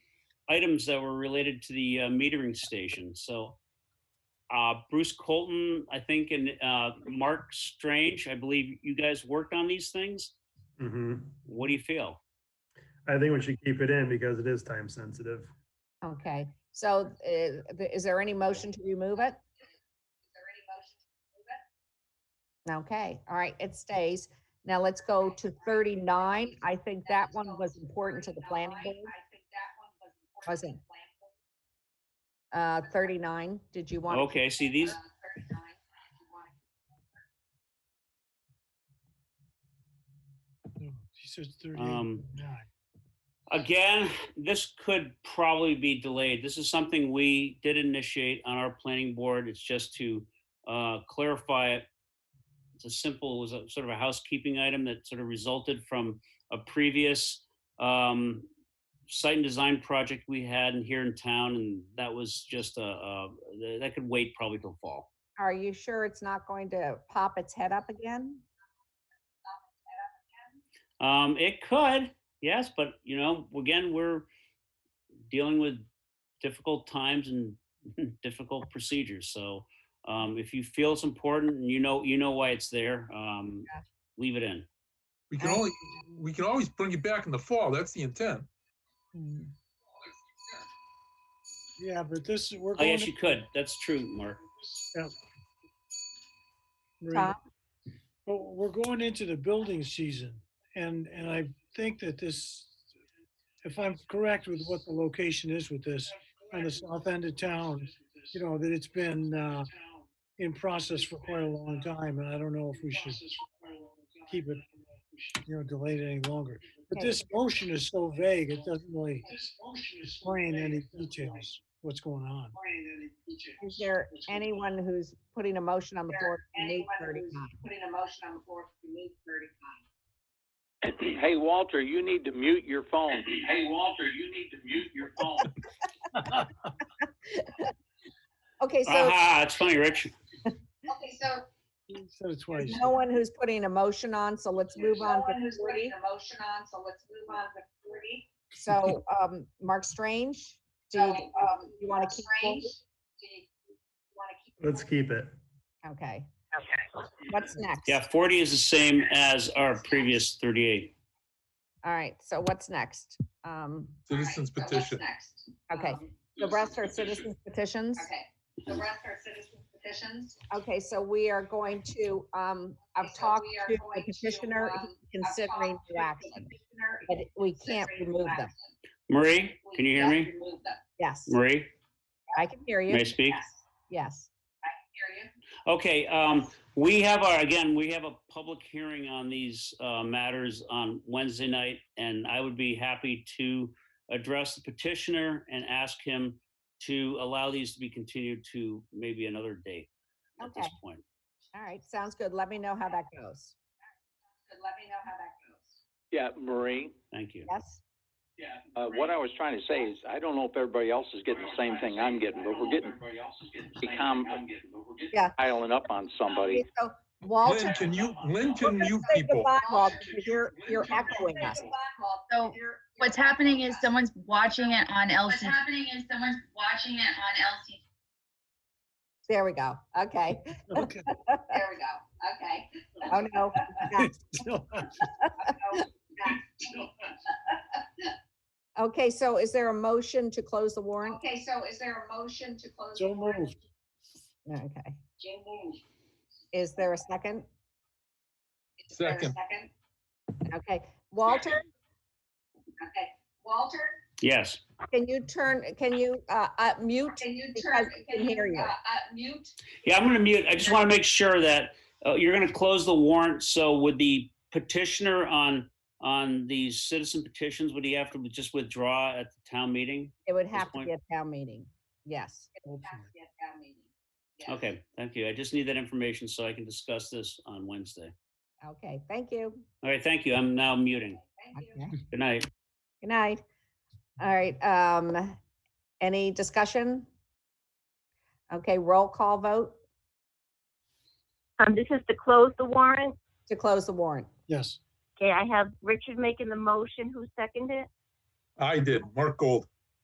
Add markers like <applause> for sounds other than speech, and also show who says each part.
Speaker 1: items that were related to the uh, metering station. So uh, Bruce Colton, I think, and uh, Mark Strange, I believe you guys worked on these things.
Speaker 2: hmm
Speaker 1: What do you feel?
Speaker 2: I think we should keep it in because it is time sensitive.
Speaker 3: Okay, so uh, th- is there any motion to remove it? Okay, all right, it stays. Now let's go to 39. I think that one was important to the planning board. Was it? Uh, 39, did you want?
Speaker 1: Okay, see these,
Speaker 3: Uh,
Speaker 4: She says thirty-eight,
Speaker 1: um,
Speaker 4: nine.
Speaker 1: Again, this could probably be delayed. This is something we did initiate on our planning board. It's just to uh, clarify it. It's a simple, it was a sort of a housekeeping item that sort of resulted from a previous um, site and design project we had in- here in town, and that was just a, a that could wait probably till fall.
Speaker 3: Are you sure it's not going to pop its head up again?
Speaker 1: Um, it could, yes, but you know, again, we're dealing with difficult times and <laughs> difficult procedures. So um, if you feel it's important and you know you know why it's there, um,
Speaker 3: Yeah.
Speaker 1: leave it in.
Speaker 5: We can
Speaker 3: Right.
Speaker 5: only, we can always bring it back in the fall, that's the intent.
Speaker 4: Yeah, but this, is we're
Speaker 1: Oh
Speaker 4: going,
Speaker 1: yes,
Speaker 4: to-
Speaker 1: you could. That's true, Mark.
Speaker 4: Marina,
Speaker 1: Hmm.
Speaker 3: Tom?
Speaker 4: but we're going into the building season. And, and I think that this, if I'm correct with what the location is with this, on the south end of town, you know, that it's been, uh, in process for quite a long time, and I don't know if we should keep it, you know, delayed any longer. But
Speaker 3: Okay.
Speaker 4: this motion is so vague, it doesn't really explain any details, what's going on.
Speaker 3: Is there anyone who's putting a motion on the floor? to remove 39?
Speaker 6: Hey, Walter, you need to mute your phone. Hey, Walter, you need to mute your phone.
Speaker 3: Okay, so
Speaker 1: Aha, it's funny, Rich.
Speaker 7: Okay, so.
Speaker 4: He Said it twice.
Speaker 3: no one who's putting a motion on, so let's move on
Speaker 7: No one
Speaker 3: to
Speaker 7: who's putting
Speaker 3: 40.
Speaker 7: a motion on, so let's move on to forty.
Speaker 3: So, um, Mark Strange, do
Speaker 7: So,
Speaker 3: you,
Speaker 7: um,
Speaker 3: you wanna keep
Speaker 7: Strange,
Speaker 3: forty?
Speaker 7: do you wanna keep
Speaker 2: Let's
Speaker 7: forty?
Speaker 2: keep it.
Speaker 3: okay. What's next?
Speaker 1: Yeah, forty is the same as our previous thirty-eight.
Speaker 3: All right, so what's next? Um,
Speaker 5: <laughs> Citizens
Speaker 7: All right, so what's
Speaker 5: petition.
Speaker 7: next?
Speaker 3: okay,
Speaker 7: Um,
Speaker 3: the rest are citizens petitions.
Speaker 7: Okay, the rest are citizens petitions.
Speaker 3: Okay, so we are going to, um, I've
Speaker 7: Okay, so
Speaker 3: talked
Speaker 7: we are
Speaker 3: to the
Speaker 7: going to,
Speaker 3: petitioner
Speaker 7: um,
Speaker 3: he's
Speaker 7: I've
Speaker 3: considering
Speaker 7: talked to
Speaker 3: new
Speaker 7: the
Speaker 3: action,
Speaker 7: petitioner,
Speaker 3: but we
Speaker 7: he's
Speaker 3: can't
Speaker 7: considering
Speaker 3: remove
Speaker 7: new
Speaker 3: them.
Speaker 7: action.
Speaker 1: Marie,
Speaker 7: We
Speaker 1: can you hear
Speaker 7: can't
Speaker 1: me?
Speaker 7: remove them.
Speaker 3: Yes,
Speaker 1: Marie,
Speaker 3: I can hear
Speaker 1: may I
Speaker 3: you.
Speaker 1: speak?
Speaker 7: Yes,
Speaker 3: Yes.
Speaker 7: hear you.
Speaker 1: Okay, um, we have our, again, we have a public hearing on these, uh, matters on Wednesday night, and I would be happy to address the petitioner and ask him to allow these to be continued to maybe another date at this
Speaker 3: Okay.
Speaker 1: point.
Speaker 3: All right, sounds good. Let me know how that goes.
Speaker 7: Good, let me know how that goes.
Speaker 6: Yeah, Marie,
Speaker 1: Thank you.
Speaker 3: Yes?
Speaker 6: uh, what I was trying to say is, I don't know if everybody else is getting the same thing I'm getting, but we're getting, become
Speaker 3: Yeah.
Speaker 6: piling up on somebody.
Speaker 3: Okay, So
Speaker 5: Lynn,
Speaker 3: Walter,
Speaker 5: can you, Lynn,
Speaker 3: we're
Speaker 5: can
Speaker 3: gonna
Speaker 5: you
Speaker 3: say
Speaker 5: people?
Speaker 3: goodbye, Walter, because you're, you're echoing us.
Speaker 8: So What's happening is someone's watching it on
Speaker 7: What's
Speaker 8: LCD.
Speaker 7: happening is someone's watching it on LCD.
Speaker 3: There we go. Okay.
Speaker 4: Okay.
Speaker 7: There we go. Okay.
Speaker 3: Oh,
Speaker 5: <laughs>
Speaker 3: no. Next. Okay, so is there a motion to close the warrant?
Speaker 7: Okay, so is there a motion to close?
Speaker 4: So moved.
Speaker 3: Oh, Okay.
Speaker 7: Jane moved.
Speaker 3: Is there a second?
Speaker 7: Is there a
Speaker 5: Second.
Speaker 7: Second.
Speaker 3: Okay. Walter,
Speaker 7: Okay. Walter,
Speaker 1: Yes,
Speaker 3: can you turn, can you, uh, uh, mute?
Speaker 7: can you
Speaker 3: Because
Speaker 7: turn,
Speaker 3: we can
Speaker 7: can
Speaker 3: hear
Speaker 7: you,
Speaker 3: you.
Speaker 7: uh, uh, mute?
Speaker 1: yeah, I'm gonna mute, I just wanna make sure that, uh, you're gonna close the warrant, so would the petitioner on, on the citizen petitions, would he have to just withdraw at the town meeting?
Speaker 3: It would have to
Speaker 1: point.
Speaker 3: be a town meeting. Yes.
Speaker 4: Hopefully.
Speaker 7: Yes, town meeting. Yes.
Speaker 1: Okay, thank you. I just need that information so I can discuss this on Wednesday.
Speaker 3: Okay, thank you.
Speaker 1: All right, thank you. I'm now muting.
Speaker 7: Thank you.
Speaker 3: Okay.
Speaker 1: Good night.
Speaker 3: Good night. All right, um, any discussion? Okay, roll call vote
Speaker 9: Um, this is to close the warrant.
Speaker 3: to close the warrant.
Speaker 4: Yes.
Speaker 9: Okay, I have Richard making the motion. Who seconded it?
Speaker 5: I did, Mark Gold.